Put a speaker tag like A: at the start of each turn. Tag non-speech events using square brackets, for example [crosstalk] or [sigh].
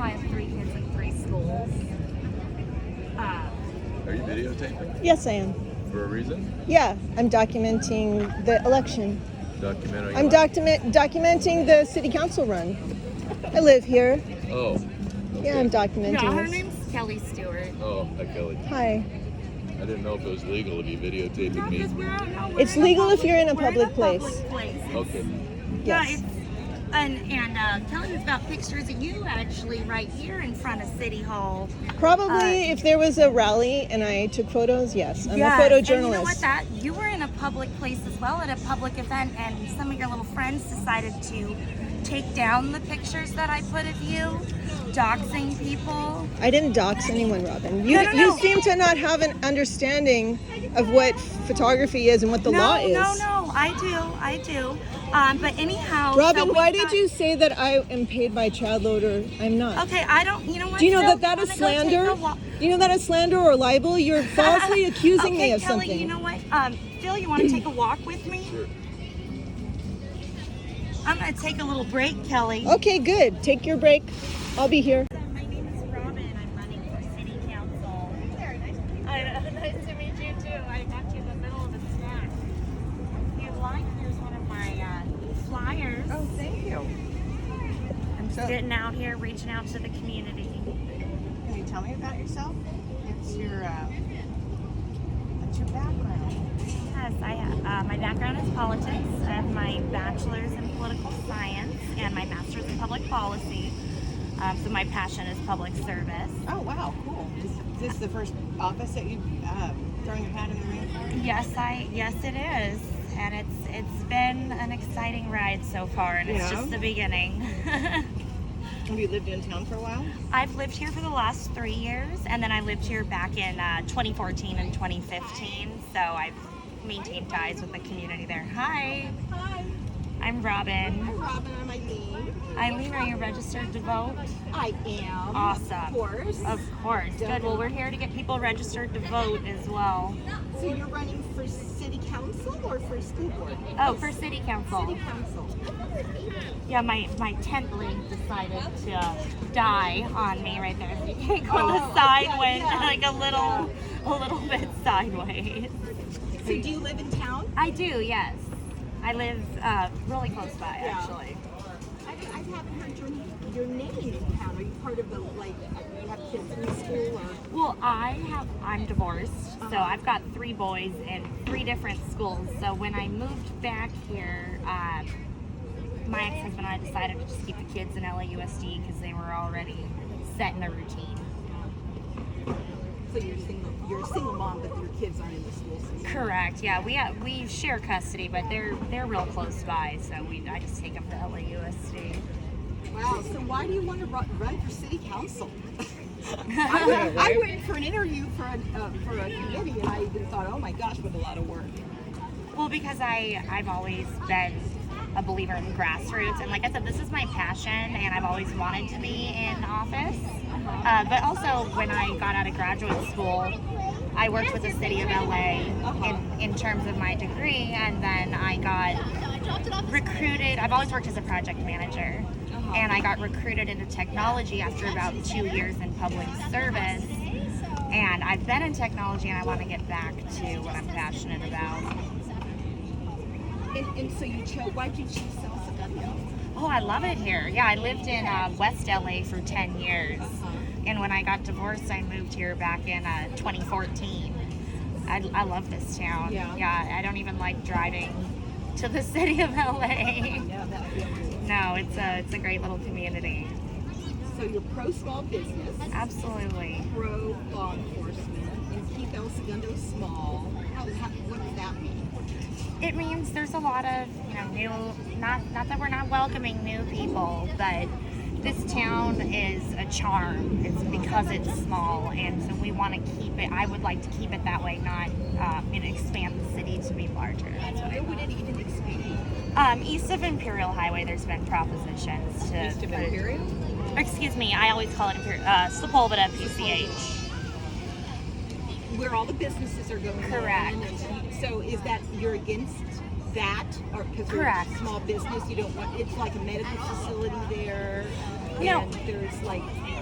A: Uh,
B: entertainment
C: Yes, I am.
B: for a reason.
C: Yeah, I'm documenting the election.
B: Documentary.
C: I'm document documenting the city council run. I live here.
B: Oh. Okay.
C: Yeah, I'm documenting.
A: No, her
C: this.
A: name's Kelly Stewart.
B: Oh, hi Kelly.
C: Hi.
B: I didn't know if it was legal if you videotaped me.
C: It's legal if you're in a public place.
B: Okay.
A: Yeah,
C: Yes.
A: it's, and, and uh, Kelly's got pictures of you actually right here in front of City Hall.
C: Probably if there was a rally and I took photos, yes. I'm
A: uh, Yes,
C: a
A: And you know what?
C: photojournalist.
A: That you were in a public place as well at a public event, and some of your little friends decided to take down the pictures that I put of you, doxing people.
C: I didn't dox anyone, Robin. You
A: No, no,
C: you
A: no.
C: seem to not have an understanding of what photography is and what the
A: no,
C: law is.
A: no, no. I do, I do. Um, but anyhow, so
C: Robin,
A: we
C: why did
A: thought-
C: you say that I am paid by child loader? I'm not.
A: Okay, I don't. You know what?
C: Do you know
A: Phil?
C: that that is
A: I'm gonna go take
C: slander?
A: a walk.
C: Do you know that is slander or libel? You're falsely accusing
A: [laughs] okay,
C: me of
A: Kelly,
C: something.
A: You know what? Um, Phil, you want to take a walk with me?
B: Sure.
A: I'm gonna take a little break, Kelly.
C: okay, good. Take your break. I'll be here.
A: My name is Robin. I'm running for city council.
D: I know.
A: [laughs]
D: Nice to meet you too. I got you in the middle of a snack.
A: If you like, here's one of my uh, flyers.
D: Oh, thank you.
A: I'm just getting out here, reaching out to the community.
D: Can you tell me about yourself? What's your uh, what's your background?
A: Yes, I have. Uh, my background is politics. I have my bachelor's in political science and my master's in public policy. Um, so my passion is public service.
D: Oh wow, cool. Is this the first office that you uh, throwing your hat in the ring for?
A: Yes, I. Yes, it is, and it's it's been an exciting ride so far, and it's
D: Yeah.
A: just the beginning. [laughs]
D: Have you lived in town for a while?
A: I've lived here for the last three years, and then I lived here back in uh, 2014 and 2015. So I've maintained ties with the community there. Hi. Hi. I'm Robin.
D: Robin, I'm Eileen.
A: Eileen, are you registered to vote?
D: I am.
A: Awesome.
D: course.
A: Of course. Good. Well, we're here to get people registered to vote as well.
D: So you're running for city council or for school board?
A: Oh, for city council.
D: council.
A: Yeah, my, my tent link decided to die on me right there. [laughs] The cake on the
D: Oh,
A: side
D: yeah,
A: went
D: yeah,
A: like a little a little bit sideways.
D: So do you live in town?
A: I do, yes. I live uh, really close by actually.
D: I, I haven't heard your, your name in town. Are you part of the like? You have kids in school or?
A: Well, I have I'm divorced, so I've got three boys in three different schools. So when I moved back here, uh, my ex-husband and I decided to just keep the kids in LAUSD because they were already set in a routine.
D: So you're single. You're a single mom, but your kids aren't in the school system.
A: Correct. Yeah, we have, we share custody, but they're they're real close by, so we I just take them to LAUSD.
D: Wow. So why do you want to run, run for city council? [laughs] I, went, I went for an interview for a uh, for a committee, and I even thought, oh my gosh, what a lot of work.
A: Well, because I I've always been a believer in grassroots, and like I said, this is my passion, and I've always wanted to be in office. Uh, but also, when I got out of graduate school, I worked with the city of LA in, in terms of my degree, and then I got recruited. I've always worked as a project manager, and I got recruited into technology after about two years in public service. And I've been in technology, and I want to get back to what I'm passionate about.
D: And, and so you chose. Why did you choose Salcedo?
A: Oh, I love it here. Yeah, I lived in uh, West LA for 10 years. And when I got divorced, I moved here back in uh, 2014. I, I love this town.
D: Yeah.
A: I don't even like driving to the [laughs] city of LA.
D: Yeah, that would be
A: No, it's a, it's a great little community.
D: So you're pro small business,
A: Absolutely.
D: pro law enforcement, and keep El Segundo small. How, how, what does that mean?
A: It means there's a lot of, you know, new, not, not that we're not welcoming new people, but this town is a charm. It's because it's small, and so we want to keep it. I would like to keep it that way, not um, and expand the city to be larger. That's what I
D: Where would it even expand?
A: Um, east of Imperial Highway, there's been propositions to.
D: East of
A: put it-
D: Imperial?
A: Excuse me, I always call it Imperial, uh, Sepulveda, PCH.
D: where all the businesses are going. in.
A: Correct.
D: So is that you're against that, or because
A: Correct.
D: small business, you don't want it's like a medical facility there.
A: No.
D: and There's like